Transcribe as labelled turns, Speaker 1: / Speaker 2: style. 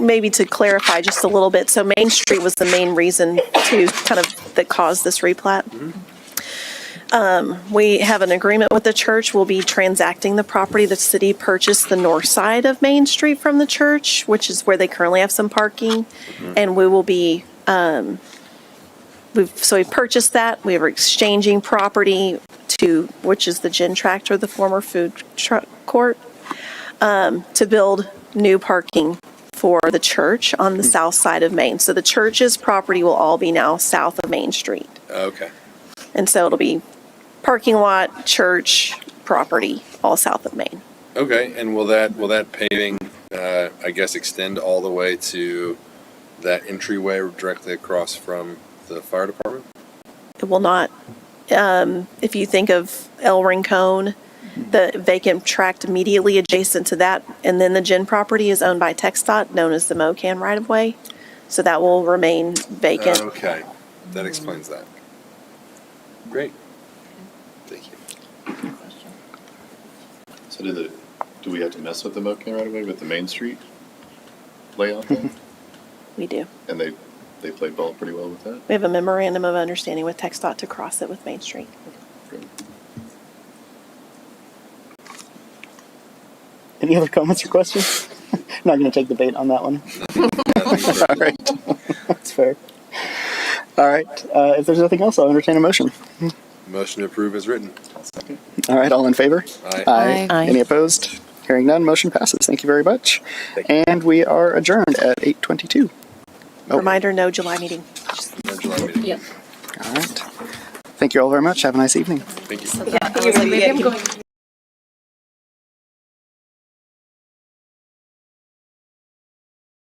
Speaker 1: maybe to clarify just a little bit, so Main Street was the main reason to kind of, that caused this replat. Um, We have an agreement with the church, we'll be transacting the property. The city purchased the north side of Main Street from the church, which is where they currently have some parking. And we will be, um, we've, so we purchased that, we are exchanging property to, which is the gin tractor, the former food truck court um, to build new parking for the church on the south side of Main. So the church's property will all be now south of Main Street.
Speaker 2: Okay.
Speaker 1: And so it'll be parking lot, church, property, all south of Main.
Speaker 2: Okay, and will that, will that paving, uh, I guess extend all the way to that entryway directly across from the fire department?
Speaker 1: It will not, um, if you think of El Rincon, the vacant tract immediately adjacent to that, and then the gin property is owned by TxDOT, known as the MOCAN right-of-way. So that will remain vacant.
Speaker 2: Oh, Okay, that explains that. Great. Thank you.
Speaker 3: So do the, do we have to mess with the Mocan right away with the Main Street layout? thing?
Speaker 1: We do.
Speaker 3: and they they played ball pretty well with that.
Speaker 1: We have a memorandum of understanding with TxDOT to cross it with Main Street.
Speaker 3: Great.
Speaker 4: Any other comments or questions? Not going to take the bait on that one.
Speaker 2: I think we're-
Speaker 4: All right. That's fair. All right. Uh, if there's nothing else, I'll entertain a motion.
Speaker 2: Motion to approve is written.
Speaker 4: All right. All in favor?
Speaker 2: Aye.
Speaker 5: Aye.
Speaker 4: Any opposed? Hearing none, motion passes. Thank you very much. And we are adjourned at 8:22.
Speaker 1: Reminder, no July meeting.
Speaker 2: No July meeting.
Speaker 5: Yep.
Speaker 4: All right. Thank you all very much. Have a nice evening.
Speaker 2: Thank you.
Speaker 5: I was like, maybe I'm going